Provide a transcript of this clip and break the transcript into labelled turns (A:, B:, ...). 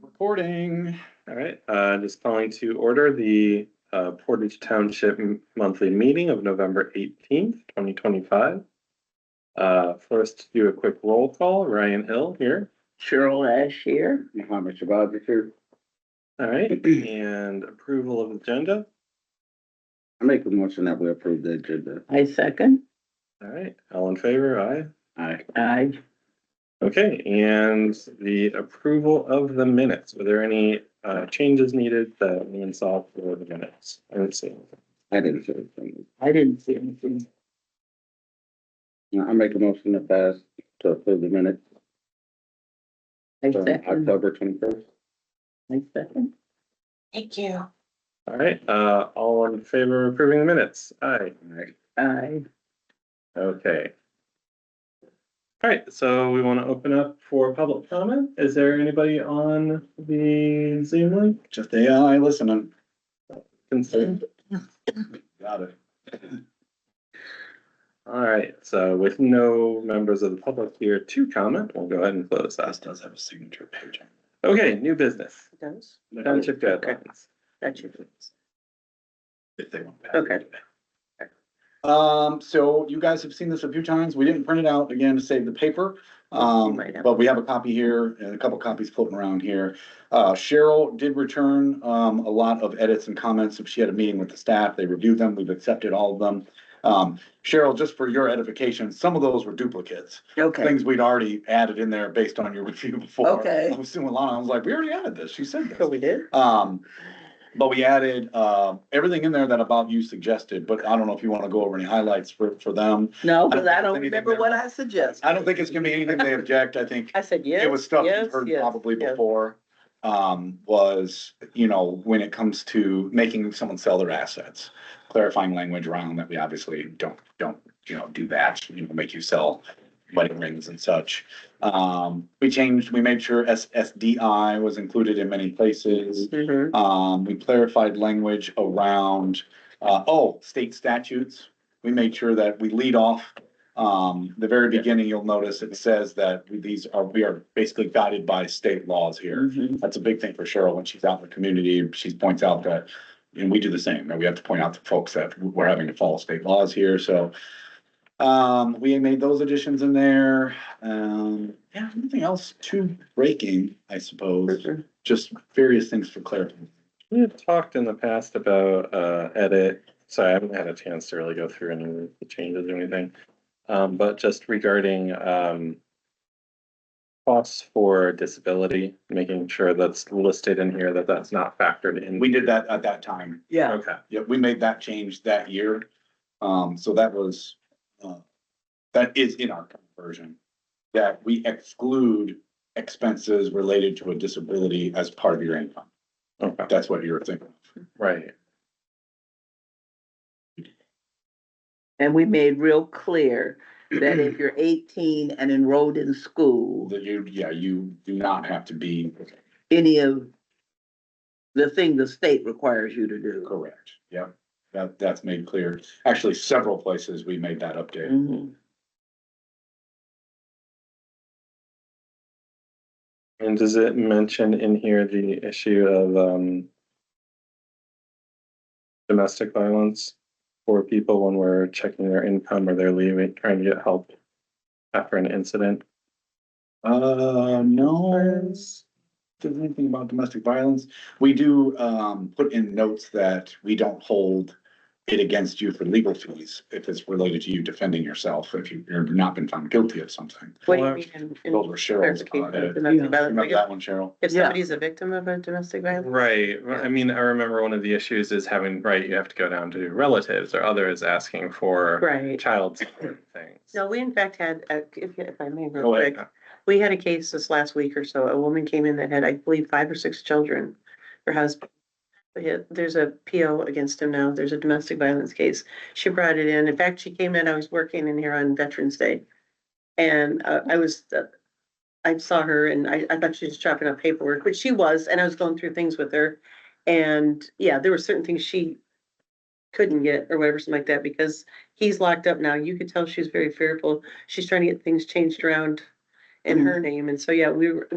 A: reporting. All right, uh, just calling to order the, uh, Portage Township m- Monthly Meeting of November eighteenth, twenty twenty-five. Uh, first, do a quick roll call. Ryan Hill here.
B: Cheryl Ash here.
C: Muhammad Shabazz is here.
A: All right, and approval of agenda.
C: I make a motion that we approve the agenda.
B: I second.
A: All right, all in favor, aye.
C: Aye.
B: I,
A: Okay, and the approval of the minutes. Were there any, uh, changes needed that anyone saw for the minutes? I didn't see.
C: I didn't say anything.
B: I didn't see anything.
C: I make a motion to pass to approve the minutes
B: I
C: from
B: second.
C: October twenty-first.
B: I second.
D: Thank you.
A: All right, uh, all in favor of approving the minutes? Aye.
B: I,
A: Okay. All right, so we want to open up for public comment. Is there anybody on the Zoom link?
C: Just a, I listening.
A: Consent.
C: Got it.
A: All right, so with no members of the public here to comment, we'll go ahead and close that.
C: does have a signature page.
A: Okay, new business,
B: Does?
A: township guidelines.
B: Got you.
C: If they want.
B: Okay.
E: Um, so you guys have seen this a few times. We didn't print it out again to save the paper. Um,
B: Right.
E: but we have a copy here and a couple copies floating around here. Uh, Cheryl did return, um, a lot of edits and comments. She had a meeting with the staff. They reviewed them. We've accepted all of them. Um, Cheryl, just for your edification, some of those were duplicates,
B: Okay.
E: things we'd already added in there based on your review before.
B: Okay.
E: I was doing Lana, I was like, we already added this. She said this.
B: we did?
E: Um, but we added, uh, everything in there that about you suggested, but I don't know if you wanna go over any highlights for, for them.
B: No,
E: I
B: because
E: don't
B: I don't
E: think
B: remember
E: they're-
B: what I suggested.
E: I don't think it's gonna be anything they object, I think
B: I said yes.
E: it was stuff
B: yes,
E: you've heard
B: yes,
E: probably
B: yes.
E: before. Um, was, you know, when it comes to making someone sell their assets, clarifying language around that we obviously don't, don't, you know, do that, you know, make you sell wedding rings and such. Um, we changed, we made sure S, SDI was included in many places.
B: Mhm.
E: Um, we clarified language around, uh, oh, state statutes. We made sure that we lead off, um, the very beginning, you'll notice it says that these are, we are basically guided by state laws here.
B: Mhm.
E: That's a big thing for Cheryl when she's out in the community. She points out that, and we do the same, that we have to point out to folks that we're having to follow state laws here, so. Um, we made those additions in there. Um, yeah, nothing else too breaking, I suppose
B: Mhm.
E: just various things for clarity.
A: We have talked in the past about uh edit, sorry, I haven't had a chance to really go through any of the changes or anything. Um, but just regarding um. Costs for disability, making sure that's listed in here, that that's not factored in.
E: We did that at that time.
B: Yeah,
A: Okay,
E: Yeah, we made that change that year. Um, so that was, uh, that is in our current version. That we exclude expenses related to a disability as part of your income.
A: okay,
E: That's what you're thinking.
A: right,
B: and we made real clear that if you're eighteen and enrolled in school,
E: That you, yeah, you do not have to be
B: any of the thing the state requires you to do.
E: correct. Yeah, that, that's made clear. Actually, several places we made that update.
B: Mhm.
A: and does it mention in here the issue of um. Domestic violence for people when we're checking their income or they're leaving, trying to get help after an incident?
E: Uh, no. Does anything about domestic violence? We do um put in notes that we don't hold it against you for legal fees if it's related to you defending yourself, if you- you've not been found guilty of something.
F: What do
A: Well,
F: you mean? in- in
E: Those were Cheryl's.
F: clarification
E: uh,
F: of domestic violence?
E: Remember
F: Like,
E: that one, Cheryl?
F: If if somebody's a victim of a domestic violence?
A: Right. Well, I mean, I remember one of the issues is having, right, you have to go down to relatives or others asking for
F: Right.
A: child support things.
F: No, we in fact had, a- if, if I may, real
A: Go ahead.
F: quick, we had a case this last week or so. A woman came in that had, I believe, five or six children. Her husband, yeah, there's a PO against him now. There's a domestic violence case. She brought it in. In fact, she came in, I was working in here on Veterans Day. And uh, I was, uh, I saw her and I, I thought she was chopping up paperwork, but she was, and I was going through things with her. And yeah, there were certain things she couldn't get or whatever, something like that, because he's locked up now. You could tell she was very fearful. She's trying to get things changed around in her name. And so, yeah, we were,